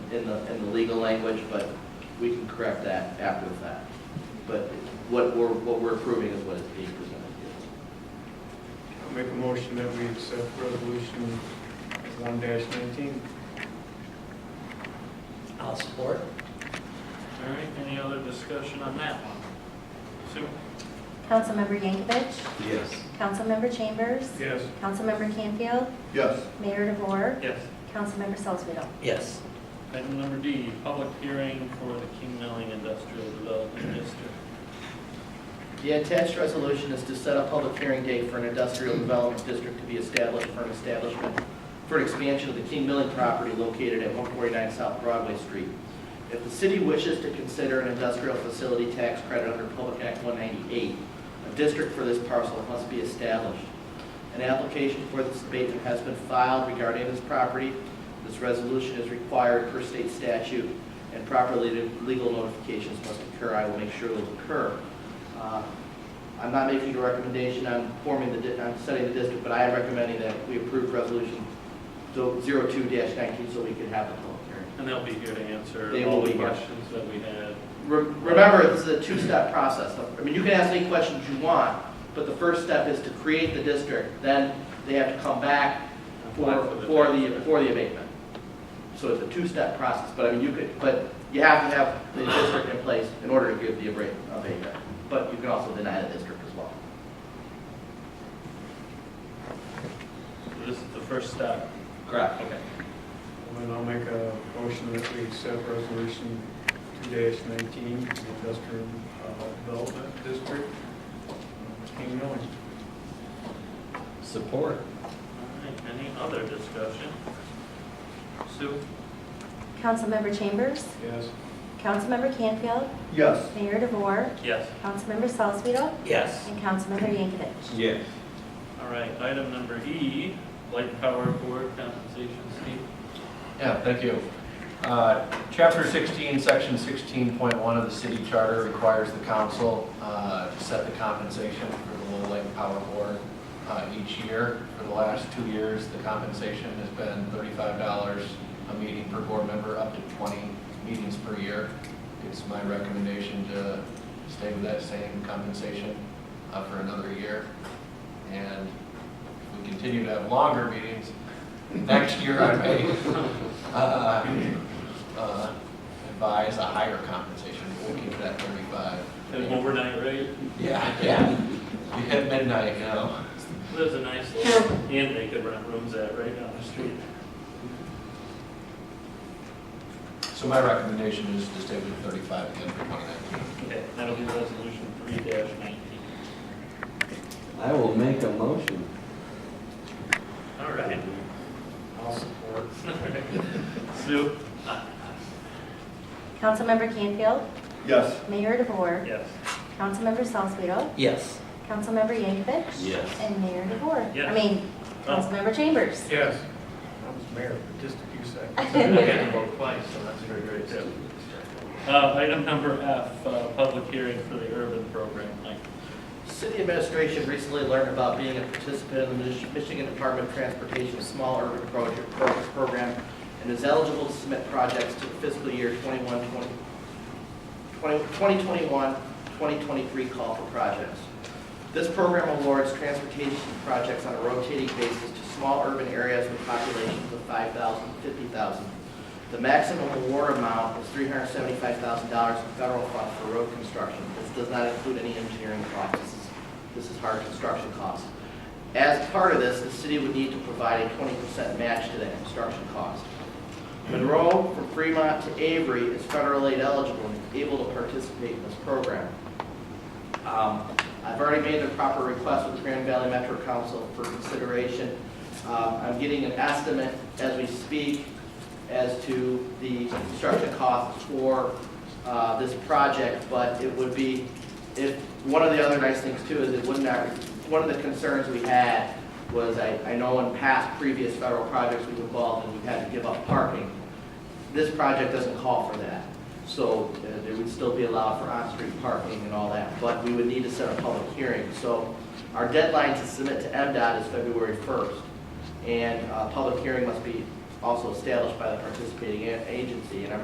in the, in the legal language, but we can correct that after the fact. But what we're, what we're approving is what is being presented I'll make a motion that we accept resolution one nineteen. I'll support. All right, any other discussion on that one? Sue? Councilmember Yankovic, here. Yes. Councilmember Chambers, Yes. Councilmember Canfield, Yes. Mayor DeVore, Yes. Councilmember Salzweedl. Yes. Item number D, public hearing for the King Milling Industrial Development District. The attached resolution is to set a public hearing date for an industrial development district to be established for an establishment for an expansion of the King Milling property located at 149 South Broadway Street. If the city wishes to consider an industrial facility tax credit under Public Act 198, a district for this parcel must be established. An application for this abatement has been filed regarding this property. This resolution is required per state statute, and proper le- legal notifications must occur. I will make sure those occur. Uh, I'm not making a recommendation on forming the, di- on setting the district, but I am recommending that we approve resolution 02-19 so we can have the public hearing. And they'll be here to answer They all will the be here. questions that we had. Re- Remember, this is a two-step process. I mean, you can ask any questions you want, but the first step is to create the district, then they have to come back for, for the, for the abatement. So it's a two-step process, but I mean, you could, but you have to have the district in place in order to give the abate- abatement. But you can also deny the district as well. So This is the first step. Correct. Okay. And I'll make a motion that we accept resolution two nineteen, industrial uh, development district, King Milling. Support. All right, any other discussion? Sue? Councilmember Chambers, Yes. Councilmember Canfield, Yes. Mayor DeVore, Yes. Councilmember Salzweedl, Yes. and Councilmember Yankovic. Yes. All right, item number E, Light and Power Board compensation, Steve. Yeah, thank you. Uh, Chapter 16, Section 16.1 of the city charter requires the council uh, to set the compensation for the Lowell Lake Power Board uh, each year. For the last two years, the compensation has been $35 a meeting per board member, up to 20 meetings per year. It's my recommendation to stay with that same compensation uh, for another year. And if we continue to have longer meetings, next year I may uh, uh, advise a higher compensation, we'll keep it at 35. An overnight rate, Yeah, yeah, We hit midnight, uh, you know. there's a nice little inn they could rent rooms at right down the street. So my recommendation is to stay with 35 again for 2019. Okay, that'll be resolution three nineteen. I will make a motion. All right. I'll support. Sue? Councilmember Canfield, Yes. Mayor DeVore, Yes. Councilmember Salzweedl, Yes. Councilmember Yankovic. Yes. And Mayor DeVore. Yes. Oh. I mean, Councilmember Chambers. Yes. I was mayor for just a few seconds. Okay. vote twice, so that's very great, too. Uh, item number F, uh, public hearing for the urban program, Mike. City administration recently learned about being a participant in the Mich- Michigan Department of Transportation's Small Urban Project Pro- Program and is eligible to submit projects to the fiscal year 21, 20 2021, 2023 call for projects. This program awards transportation projects on a rotating basis to small urban areas with populations of 5,000, 50,000. The maximum award amount is $375,000 in federal funds for road construction. This does not include any engineering costs. This is- This is hard construction costs. As part of this, the city would need to provide a 20% match to that construction cost. Monroe from Fremont to Avery is federal aid eligible and is able to participate in this program. Um, I've already made the proper request with Grand Valley Metro Council for consideration. Um, I'm getting an estimate as we speak as to the construction costs for uh, this project, but it would be, if, one of the other nice things too is it would not, one of the concerns we had was, I, I know in past previous federal projects we've involved and we've had to give up parking. This project doesn't call for that, so uh, there would still be allowed for on-street parking and all that, but we would need to set a public hearing. So our deadline to submit to MDOT is February 1st, and a uh, public hearing must be also established by the participating a- agency, and I